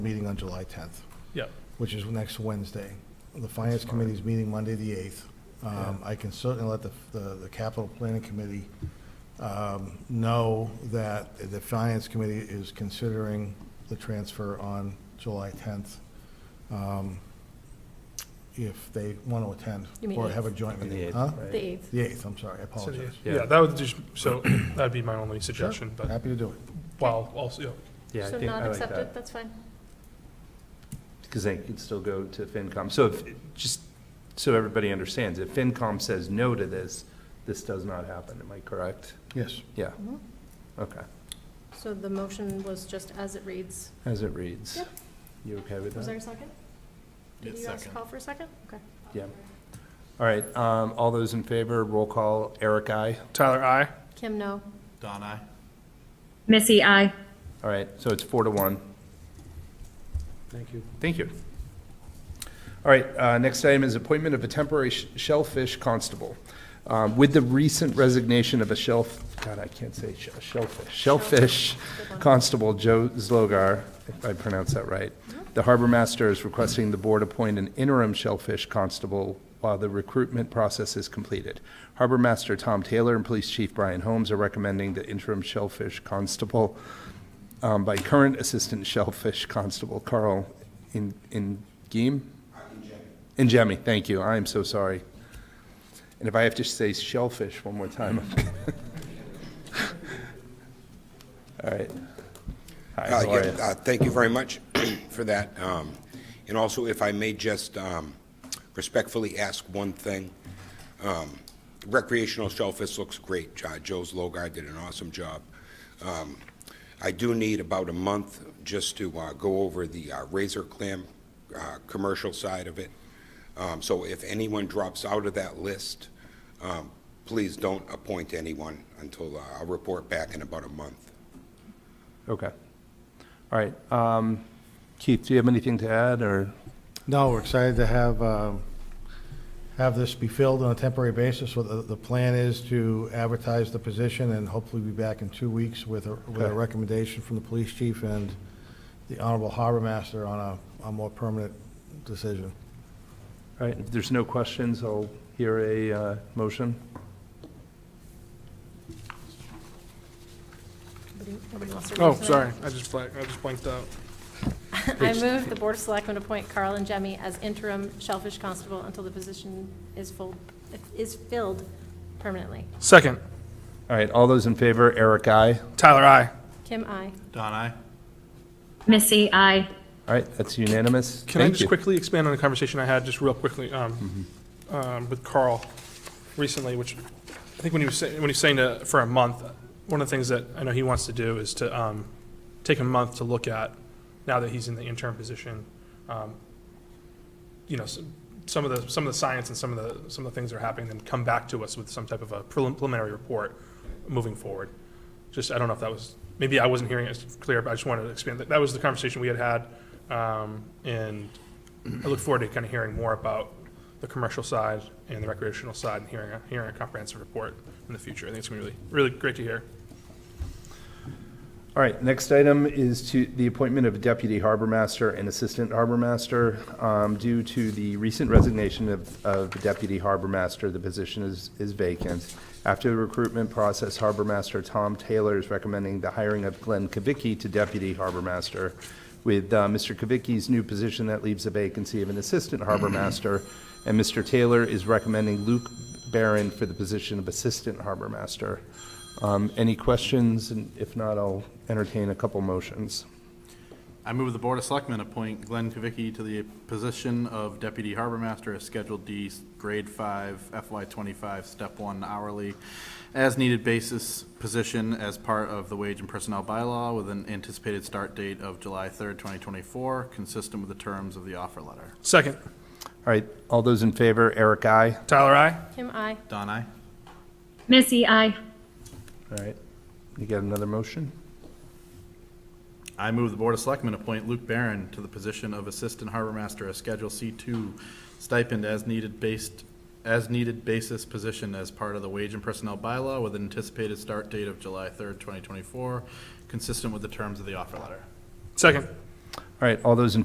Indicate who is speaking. Speaker 1: meeting on July 10th,
Speaker 2: Yep,
Speaker 1: which is next Wednesday. The Finance Committee is meeting Monday, the 8th. Um, I can certainly let the, the the Capital Planning Committee um, know that the Finance Committee is considering the transfer on July 10th, um, if they want to attend
Speaker 3: You mean
Speaker 1: or have a
Speaker 3: eighth.
Speaker 1: joint
Speaker 4: The
Speaker 1: meeting.
Speaker 4: eighth,
Speaker 1: Huh?
Speaker 4: right?
Speaker 3: The 8th.
Speaker 1: The 8th, I'm sorry, I
Speaker 2: So, yeah,
Speaker 1: apologize.
Speaker 4: Yeah.
Speaker 2: yeah, that would just, so that'd be my only suggestion, but
Speaker 1: Happy to do it.
Speaker 2: while also, yeah,
Speaker 4: Yeah, I
Speaker 3: So
Speaker 4: think
Speaker 3: not
Speaker 4: I like
Speaker 3: accepted,
Speaker 4: that.
Speaker 3: that's fine.
Speaker 4: Because they could still go to FinCom. So if, just so everybody understands, if FinCom says no to this, this does not happen, am I correct?
Speaker 1: Yes.
Speaker 4: Yeah, okay,
Speaker 3: So the motion was just as it reads.
Speaker 4: as it reads.
Speaker 3: Yep.
Speaker 4: You okay with
Speaker 3: Was there
Speaker 4: that?
Speaker 3: a second? Did you guys call for a second? Okay.
Speaker 4: Yeah. All right, um, all those in favor, roll call, Eric, I.
Speaker 2: Tyler, I,
Speaker 3: Kim, no.
Speaker 5: Don, I.
Speaker 6: Missy, I.
Speaker 4: All right, so it's four to one. Thank you. Thank you. All right, uh, next item is appointment of a temporary sh- shellfish constable. Um, With the recent resignation of a shelf, God, I can't say sh- shellfish, shellfish constable Joe Zlogar, if I pronounced that right, the harbor master is requesting the board appoint an interim shellfish constable while the recruitment process is completed. Harbor master Tom Taylor and police chief Brian Holmes are recommending the interim shellfish constable um, by current Assistant Shellfish Constable Carl In In Ingemi. Ingemi, thank you. I am so sorry. And if I have to say shellfish one more time. I'm- All right. Hi,
Speaker 7: Uh,
Speaker 4: how are
Speaker 7: yeah,
Speaker 4: you?
Speaker 7: uh, Thank you very much for that. Um, And also, if I may just um, respectfully ask one thing. Um, Recreational shellfish looks great. Uh, Joe's Logar did an awesome job. Um, I do need about a month just to uh, go over the uh, razor clam uh, commercial side of it. Um, So if anyone drops out of that list, um, please don't appoint anyone until uh, I'll report back in about a month.
Speaker 4: Okay. All right. um, Keith, do you have anything to add, or?
Speaker 1: No, we're excited to have, um, have this be filled on a temporary basis. So The, the plan is to advertise the position and hopefully be back in two weeks with a, with a
Speaker 4: Okay.
Speaker 1: recommendation from the police chief and the honorable harbor master on a, a more permanent decision.
Speaker 4: All right, if there's no questions, I'll hear a uh, motion.
Speaker 3: Nobody- nobody wants to
Speaker 2: oh,
Speaker 3: read that.
Speaker 2: sorry, I just blanked, I just blanked out.
Speaker 3: I move the Board of Selectmen appoint Carl and Jemmy as interim shellfish constable until the position is full, is filled permanently.
Speaker 2: Second,
Speaker 4: All right, all those in favor, Eric, I.
Speaker 2: Tyler, I,
Speaker 3: Kim, I.
Speaker 5: Don, I.
Speaker 6: Missy, I.
Speaker 4: All right, that's unanimous.
Speaker 2: can I
Speaker 4: Thank
Speaker 2: just
Speaker 4: you.
Speaker 2: quickly expand on the conversation I had, just real quickly, um,
Speaker 4: Mm-hmm.
Speaker 2: um, with Carl recently, which I think when he was saying, when he was saying to, for a month, one of the things that I know he wants to do is to, um, take a month to look at, now that he's in the interim position, um, you know, some, some of the, some of the science and some of the, some of the things that are happening, then come back to us with some type of a prelim- preliminary report moving forward. Just, I don't know if that was, maybe I wasn't hearing it as clear, but I just wanted to expand, that, that was the conversation we had had. Um, and I look forward to kind of hearing more about the commercial side and the recreational side and hearing, a- hearing a comprehensive report in the future. I think it's gonna be really, really great to hear.
Speaker 4: All right, next item is to the appointment of Deputy Harbor Master and Assistant Harbor Master. Um, Due to the recent resignation of, of the Deputy Harbor Master, the position is, is vacant. After the recruitment process, Harbor Master Tom Taylor is recommending the hiring of Glenn Kavicki to Deputy Harbor Master. With uh, Mr. Kavicki's new position, that leaves a vacancy of an Assistant Harbor Master, and Mr. Taylor is recommending Luke Barron for the position of Assistant Harbor Master. Um, Any questions? And if not, I'll entertain a couple motions.
Speaker 5: I move the Board of Selectmen appoint Glenn Kavicki to the position of Deputy Harbor Master as Schedule D, Grade 5, FY 25, Step 1 hourly, as-needed basis position as part of the Wage and Personnel Bylaw with an anticipated start date of July 3rd, 2024, consistent with the terms of the offer letter.
Speaker 2: Second,
Speaker 4: All right, all those in favor, Eric, I.
Speaker 2: Tyler, I?
Speaker 3: Kim, I.
Speaker 5: Don, I.
Speaker 6: Missy, I.
Speaker 4: All right, you got another motion?
Speaker 5: I move the Board of Selectmen appoint Luke Barron to the position of Assistant Harbor Master, a Schedule C2 stipend as needed based, as needed basis position as part of the Wage and Personnel Bylaw with an anticipated start date of July 3rd, 2024, consistent with the terms of the offer letter.
Speaker 2: Second,
Speaker 4: All right, all those in